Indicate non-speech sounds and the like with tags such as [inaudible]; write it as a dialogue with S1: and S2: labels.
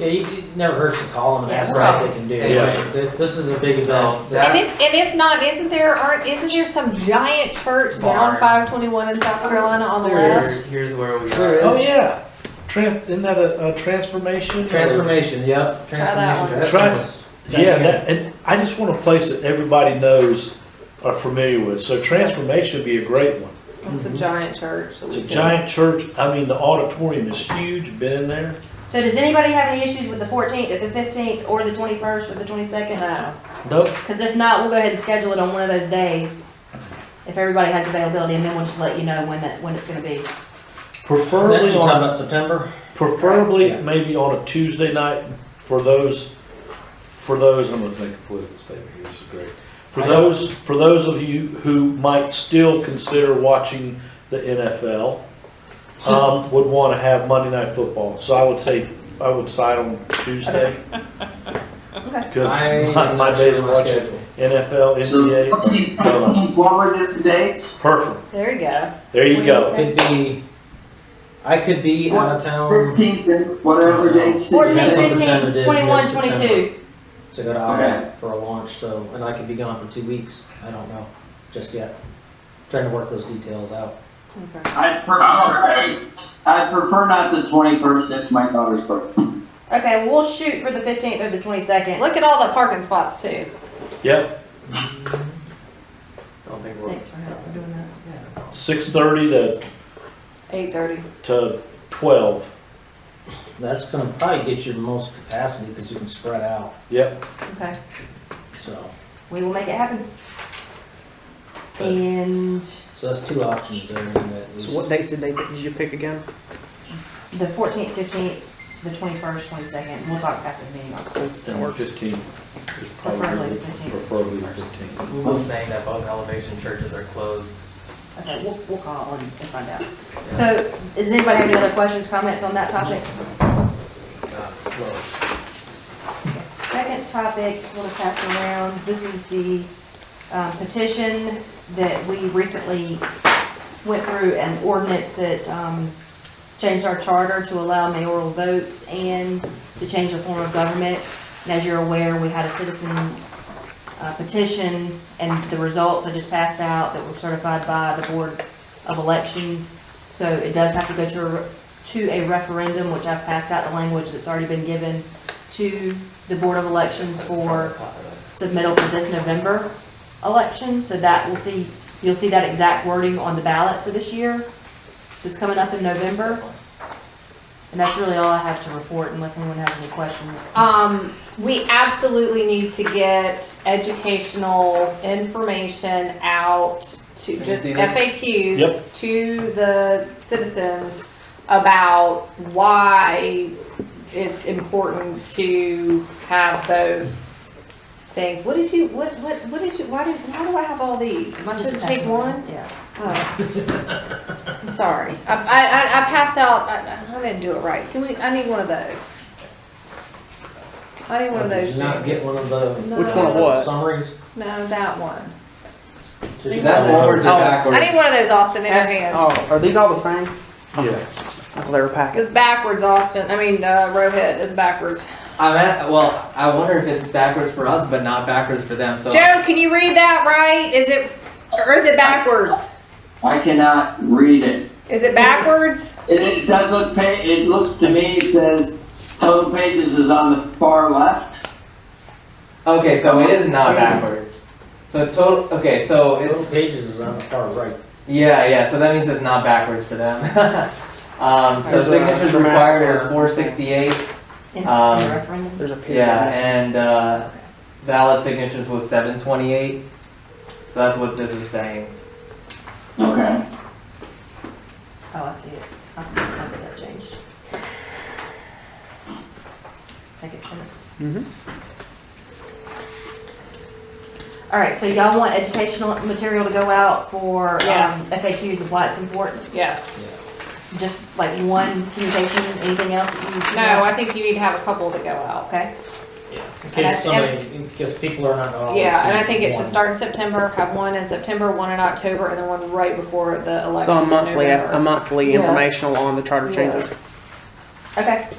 S1: Yeah, you, it never hurts to call them and
S2: Yeah,
S1: ask
S2: we'll
S1: what
S2: call
S1: they can do.
S3: Yeah.
S1: Like, th- This is a big event.
S3: Yeah.
S4: And if, and if not, isn't there, aren't, isn't there some giant church down
S2: Barn.
S4: five twenty-one in South Carolina on the left?
S2: Here's, here's where we
S1: There
S2: are.
S1: is.
S3: Oh, yeah. Trans, isn't that a, a transformation? or-
S1: Transformation, yep.
S4: Try that one.
S1: Transformation. That's
S3: Try-
S1: nice.
S3: Yeah, that, and I just want a place that everybody knows, are familiar with. So transformation would be a great one.
S4: It's a
S1: Mhm.
S4: giant church. that
S3: Mm-hmm. It's
S4: we
S3: a
S4: can-
S3: giant church. I mean, the auditorium is huge. Been in there.
S2: So does anybody have any issues with the fourteenth, or the fifteenth, or the twenty-first, or the twenty-second? No.
S3: Nope.
S2: Because if not, we'll go ahead and schedule it on one of those days, if everybody has availability, and then we'll just let you know when that, when it's gonna be.
S1: That-
S3: Preferably
S1: You talking
S3: on,
S1: about September?
S3: preferably
S1: Yeah.
S3: maybe on a Tuesday night for those, for those, I'm gonna make a political statement here, this is great. For
S1: I don't-
S3: those, for those of you who might still consider watching the NFL,
S1: [laughs]
S3: um, would wanna have Monday Night Football. So I would say, I would side on
S1: [laughs]
S3: Tuesday. Because
S1: I am
S3: my, my
S1: not
S3: days
S1: sure
S3: of
S1: my
S3: watching
S1: schedule.
S3: NFL,
S5: So let's
S3: NBA,
S5: see,
S3: are- no, no.
S5: what were the, the dates?
S3: perfect.
S4: There you go.
S3: There you go.
S1: Could be, I could be out of town
S5: Fifteenth and whatever dates. that you
S2: 14,
S1: Fourteenth,
S5: said.
S2: 15, 21, 22.
S1: September did, yeah, September. to go to Iowa
S5: Okay.
S1: for a launch, so, and I could be gone for two weeks. I don't know, just yet. Trying to work those details out.
S4: Okay.
S5: I prefer, I prefer not the twenty-first, that's my daughter's birthday.
S2: Okay, well, we'll shoot for the fifteenth or the twenty-second.
S4: Look at all the parking spots too.
S3: Yep,
S1: Don't think
S2: Thanks for help for doing that.
S3: six thirty to,
S4: Eight thirty.
S3: to twelve.
S1: That's gonna probably get you the most capacity because you can spread out,
S3: Yep.
S2: Okay,
S1: so.
S2: we will make it happen. And
S1: So that's two options there, and at least.
S6: So what dates did they, did you pick again?
S2: the fourteenth, fifteenth, the twenty-first, twenty-second, we'll talk after the meeting also.
S6: That works.
S3: Fifteen is
S2: Preferably
S3: probably,
S2: the 15.
S3: preferably the fifteen.
S7: Google saying that both elevation churches are closed.
S2: Okay, we'll, we'll call and and find out. So, does anybody have any other questions, comments on that topic?
S7: Uh,
S2: Second topic, just want to pass around, this is the um, petition that we recently went through an ordinance that um, changed our charter to allow mayoral votes and to change the form of government. And as you're aware, we had a citizen uh, petition and the results I just passed out that were certified by the Board of Elections. So it does have to go to, a re- to a referendum, which I've passed out the language that's already been given to the Board of Elections for submittal for this November election. So that will see, you'll see that exact wording on the ballot for this year that's coming up in November. And that's really all I have to report unless anyone has any questions.
S4: Um, we absolutely need to get educational information out to, just
S7: Understand.
S4: FAQs to the citizens about why it's important to have both things. What did you, what, what, what did you, why did, why do I have all these? Am I supposed to take one?
S2: Yeah.
S4: Oh, I'm sorry. I, I, I I passed out, I, I didn't do it right. Can we, I need one of those. I need one of
S1: Did
S4: those.
S1: you not get one of the
S6: Which one
S4: No,
S6: of what?
S1: summaries?
S4: No, that one.
S1: Just-
S7: That forwards or
S6: Oh.
S7: backwards?
S4: I need one of those, Austin, in your hand.
S6: Oh, are these all the same?
S3: Yeah.
S6: Oh, They're a packet.
S4: It's backwards, Austin. I mean, uh, Rohit is backwards.
S7: I'm at, well, I wonder if it's backwards for us, but not backwards for them, so.
S4: Joe, can you read that right? Is it, or is it backwards?
S5: I cannot read it.
S4: Is it backwards?
S5: It, it does look, pa- it looks to me, it says total pages is on the far left.
S7: Okay, so it is not backwards. So total, okay, so
S1: Total
S7: it's,
S1: pages is on the far right.
S7: yeah, yeah, so that means it's not backwards for them. [laughs] Um, so
S6: There's a-
S7: signatures
S6: there's a map
S7: required was
S6: there.
S7: four sixty-eight,
S2: In in
S7: Um,
S2: the referendum?
S6: There's a period.
S7: yeah, and, uh, valid signatures was seven twenty-eight. So that's what this is saying.
S5: Okay.
S2: Oh, I see it. I can I can get that changed. Second chance.
S6: Mhm.
S2: All right, so y'all want educational material to go out for um,
S4: Yes.
S2: FAQs of why it's important?
S4: Yes.
S2: Just like one communication, anything else that you?
S4: No, I think you need to have a couple to go out.
S2: Okay,
S1: In
S4: And I-
S1: case somebody, in case people are not gonna
S6: Oh,
S1: always
S4: Yeah, and I
S1: see
S4: think it
S1: one.
S4: should start in September, have one in September, one in October, and then one right before the election.
S6: So a
S4: in
S6: monthly,
S4: November.
S6: a monthly
S2: Yes.
S6: informational on the charter changes.
S2: okay.